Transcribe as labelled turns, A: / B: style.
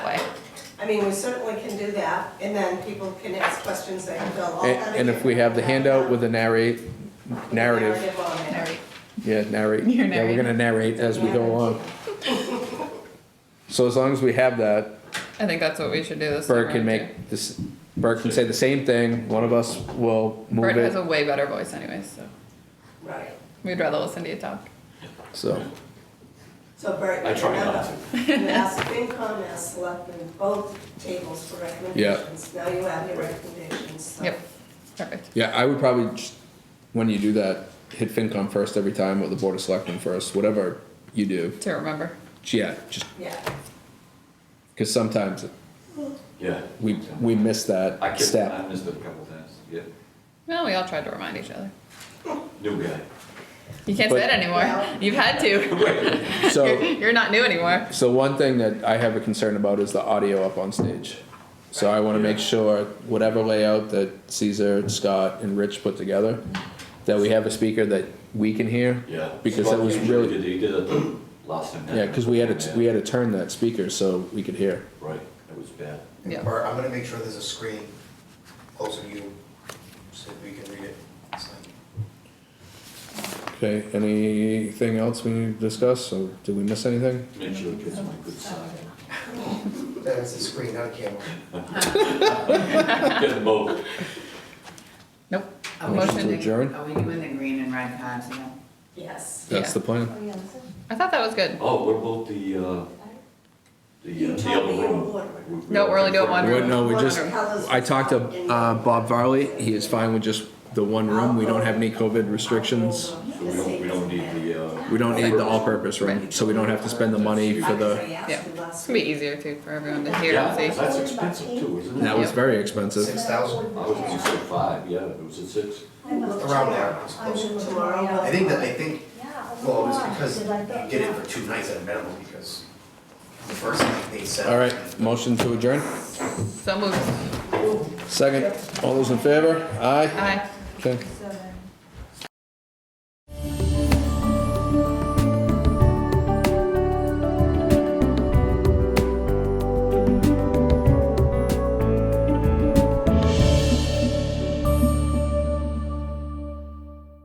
A: I mean, we certainly can do that, and then people can ask questions, they can fill all
B: And,
A: kinds of
B: and if we have the handout with the narrate, narrative,
A: on there.
B: yeah, narrate,
C: You're
B: yeah, we're gonna narrate as we go along. So as long as we have that,
C: I think that's what we should do this summer.
B: Bert can
C: too.
B: make this, Bert can say the same thing, one of us will
C: Bert
B: move
C: has a
B: it,
C: way better voice anyways, so
A: Right,
C: we'd rather listen to you talk.
B: so.
A: so Bert.
D: I try not
A: to. You asked FinCom, asked Selectmen, both tables for recommendations. Now you have your recommendations, so.
C: Yep, perfect.
B: Yeah, I would probably, just- when you do that, hit FinCom first every time, or the Board of Selectmen first, whatever you do.
C: To remember.
B: Yeah, just,
A: Yeah,
B: because sometimes
D: Yeah.
B: we, we miss
D: I
B: that
D: kept, I
B: step.
D: missed it a couple times, yeah.
C: Well, we all tried to remind each other.
D: New guy.
C: You can't say
B: But-
C: it anymore. You've had to. You're,
B: So,
C: you're not new anymore.
B: so one thing that I have a concern about is the audio up on stage. So I want to make sure whatever layout that Caesar, Scott, and Rich put together, that we have a speaker that we can hear.
D: Yeah.
B: Because that
D: Scott
B: was
D: usually
B: really,
D: did- He did it the last time.
B: yeah, because we had to, we had to turn that speaker so we could hear.
D: Right, it was bad.
C: Yeah.
E: Or I'm gonna make sure there's a screen close to you, so we can read it. It's like-
B: Okay, anything else we need to discuss, or did we miss anything?
D: Make sure it gets my good side.
E: That's a screen, not a camera.
D: Get them both.
C: Nope.
F: Are we-
B: Motion
C: Motion
B: to adjourn?
F: Are we doing the green and red cards again?
A: yes.
B: That's
C: Yeah.
B: the plan.
C: I thought that was good.
D: Oh, what about the, uh, the,
A: You
D: uh, the
A: told me
D: other
A: you
D: room?
A: would.
D: We- we
C: No,
D: all
C: we're only doing
D: confirmed.
C: one
B: Well, no, we just,
A: Colours
B: I talked to,
A: in-
B: uh, Bob Varley, he is fine with just the one room, we don't have any COVID restrictions.
D: So we don't, we don't need the, uh.
B: We don't need the all-purpose room, so we don't have to spend the money for the,
C: Yeah. It's gonna be easier too for everyone to hear
D: Yeah,
C: and see.
D: that's expensive too, isn't it?
B: that was very expensive.
E: Six thousand,
D: I was gonna say five, yeah, it was at six.
E: around there, it's close. I think that, I think, well, it was because you did it for two nights at a minimum, because the first night they said.
B: All right, motion to adjourn,
C: So moved.
B: second, all those in favor, aye?
C: Aye.
B: Okay.
G: Seven.